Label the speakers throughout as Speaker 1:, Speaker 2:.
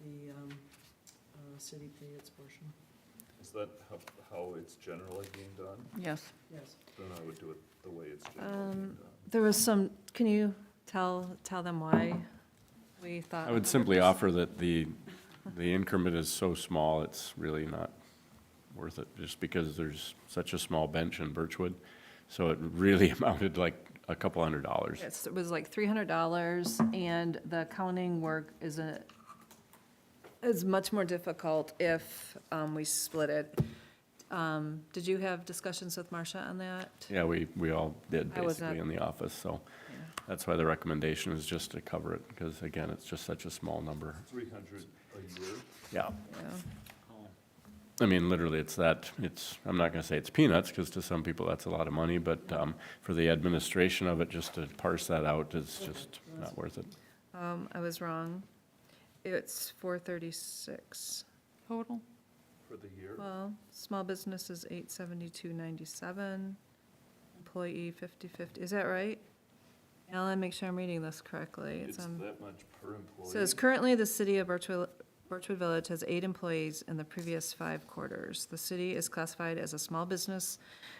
Speaker 1: the um, uh, city pay its portion.
Speaker 2: Is that how, how it's generally being done?
Speaker 3: Yes.
Speaker 1: Yes.
Speaker 2: Then I would do it the way it's generally being
Speaker 3: Um,
Speaker 2: done.
Speaker 3: There was some, can you tell, tell them why we thought?
Speaker 4: I would simply
Speaker 3: 100%?
Speaker 4: offer that the, the increment is so small, it's really not worth it, just because there's such a small bench in Birchwood. So it really amounted to like a couple hundred dollars.
Speaker 3: It's- It was like three hundred dollars, and the counting work is a, is much more difficult if um, we split it. Um, Did you have discussions with Marcia on that?
Speaker 4: Yeah, we, we all did
Speaker 3: I was not-
Speaker 4: basically in the office, so that's why the recommendation is just to cover it, because again, it's just such a small number.
Speaker 2: Three hundred a year?
Speaker 4: Yeah.
Speaker 3: Yeah.
Speaker 4: I mean, literally, it's that, it's, I'm not gonna say it's peanuts, because to some people, that's a lot of money, but, um, for the administration of it, just to parse that out is just not worth it.
Speaker 3: Um, I was wrong. It's four thirty-six. Total?
Speaker 2: For the year?
Speaker 3: Well, small business is eight seventy-two ninety-seven, employee fifty-fifty, is that right? Alan, make sure I'm reading this correctly. It's um,
Speaker 2: It's
Speaker 3: on-
Speaker 2: that much per employee?
Speaker 3: Says currently, the city of Birchwood, Birchwood Village has eight employees in the previous five quarters. The city is classified as a small business,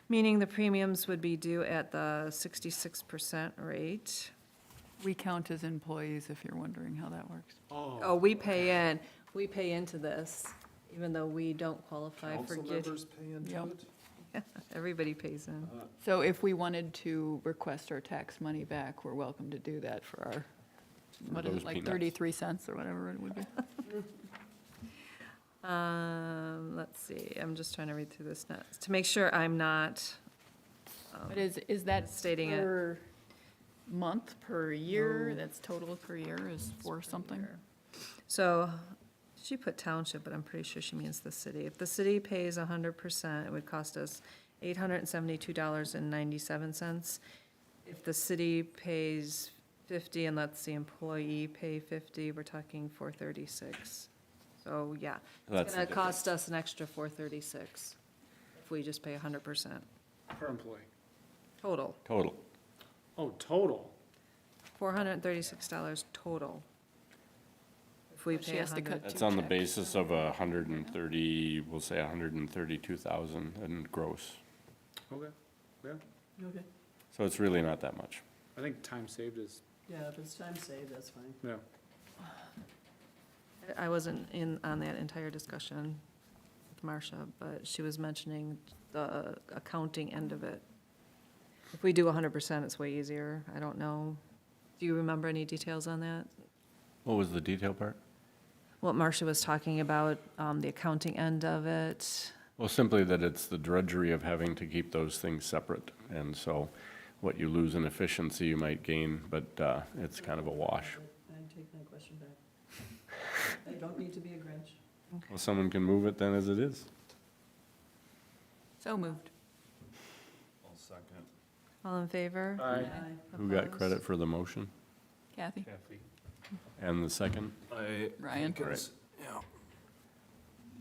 Speaker 3: meaning the premiums would be due at the sixty-six percent rate.
Speaker 5: We count as employees, if you're wondering how that works.
Speaker 3: Oh, we pay in, we pay into this, even though we don't qualify for
Speaker 2: Council
Speaker 3: get,
Speaker 2: members pay into
Speaker 5: Yep.
Speaker 2: it?
Speaker 3: everybody pays in.
Speaker 5: So if we wanted to request our tax money back, we're welcome to do that for our, what is
Speaker 4: those
Speaker 5: it, like
Speaker 4: peanuts.
Speaker 5: 33 cents or whatever it would be?
Speaker 3: Um, let's see, I'm just trying to read through this now, to make sure I'm not, um,
Speaker 5: But is, is that
Speaker 3: Stating it.
Speaker 5: per month, per year?
Speaker 3: No.
Speaker 5: That's total Oh. per year is four something?
Speaker 3: So, she put township, but I'm pretty sure she means the city. If the city pays hundred percent, it would cost us eight hundred and seventy-two dollars and ninety-seven cents. If the city pays fifty and lets the employee pay fifty, we're talking four thirty-six. So, yeah, it's
Speaker 4: That's the
Speaker 3: gonna cost us an extra four thirty-six if we just pay hundred percent
Speaker 6: Per employee.
Speaker 3: total,
Speaker 4: Total.
Speaker 6: Oh, total.
Speaker 3: four hundred and thirty-six dollars total. If we
Speaker 5: But she
Speaker 3: pay
Speaker 5: has to
Speaker 3: hundred,
Speaker 5: cut-
Speaker 4: That's
Speaker 5: Two
Speaker 4: on the
Speaker 5: checks.
Speaker 4: basis of a hundred and thirty, we'll say a hundred and thirty-two thousand and gross.
Speaker 6: Okay, yeah.
Speaker 1: Okay.
Speaker 4: So it's really not that much.
Speaker 6: I think time saved is,
Speaker 1: Yeah, if it's time saved, that's fine.
Speaker 6: yeah.
Speaker 3: I wasn't in, on that entire discussion with Marcia, but she was mentioning the accounting end of it. If we do hundred percent, it's way easier. I don't know. Do you remember any details on that?
Speaker 4: What was the detail part?
Speaker 3: What Marcia was talking about, um, the accounting end of it?
Speaker 4: Well, simply that it's the drudgery of having to keep those things separate. And so what you lose in efficiency, you might gain, but, uh, it's kind of a wash.
Speaker 1: I take my question back. I don't need to be a Grinch.
Speaker 4: Well, someone can move it then as it is.
Speaker 5: So moved.
Speaker 2: I'll second.
Speaker 3: All in favor?
Speaker 6: Aye.
Speaker 4: Who got
Speaker 3: Opposed?
Speaker 4: credit for the motion
Speaker 5: Kathy?
Speaker 2: Kathy?
Speaker 4: and the second?
Speaker 2: I.
Speaker 5: Ryan?
Speaker 4: Right.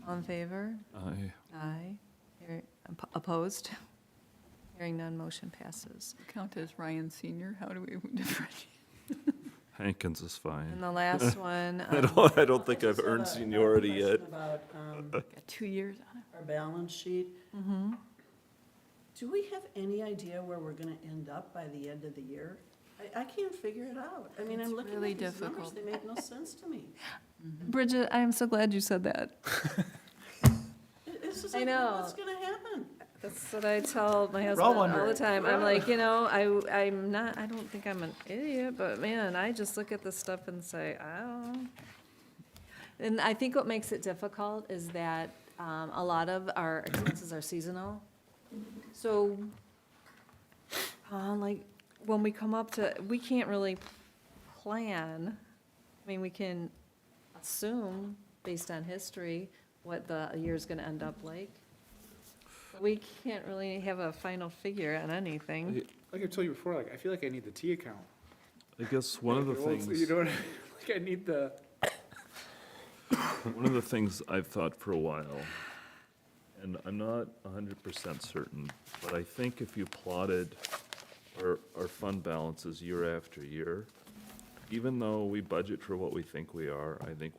Speaker 3: All in favor?
Speaker 2: I.
Speaker 3: Aye. Hear- op- Opposed? Hearing none, motion passes.
Speaker 5: Count as Ryan Senior? How do we differentiate?
Speaker 2: Hankins is fine.
Speaker 3: And the last one.
Speaker 2: I
Speaker 3: um,
Speaker 2: don't, I don't think I've
Speaker 1: Just have a-
Speaker 2: earned
Speaker 1: I have a
Speaker 2: seniority yet.
Speaker 1: question About um,
Speaker 5: Got two years on it.
Speaker 1: our balance sheet. Mm-hmm. Do we have any idea where we're gonna end up by the end of the year? I, I can't figure it out. I mean,
Speaker 5: It's
Speaker 1: I'm looking at
Speaker 5: really
Speaker 1: these numbers,
Speaker 5: difficult.
Speaker 1: they make no sense to me.
Speaker 3: Bridget, I am so glad you said that.
Speaker 1: It- It's just
Speaker 3: I
Speaker 1: like,
Speaker 3: know.
Speaker 1: what's gonna happen?
Speaker 3: That's what I tell my husband all the time. I'm like, you know, I, I'm not, I don't think I'm an idiot, but man, I just look at this stuff and say, I don't. And I think what makes it difficult is that, um, a lot of our expenses are seasonal. So, uh, like, when we come up to, we can't really plan. I mean, we can assume, based on history, what the year's gonna end up like. We can't really have a final figure on anything.
Speaker 6: Like I told you before, like, I feel like I need the T account.
Speaker 7: I guess one of the
Speaker 6: Like, well, it's- You
Speaker 7: things,
Speaker 6: know what I mean? Like, I need the,
Speaker 7: one of the things I've thought for a while, and I'm not hundred percent certain, but I think if you plotted our, our fund balances year after year, even though we budget for what we think we are, I think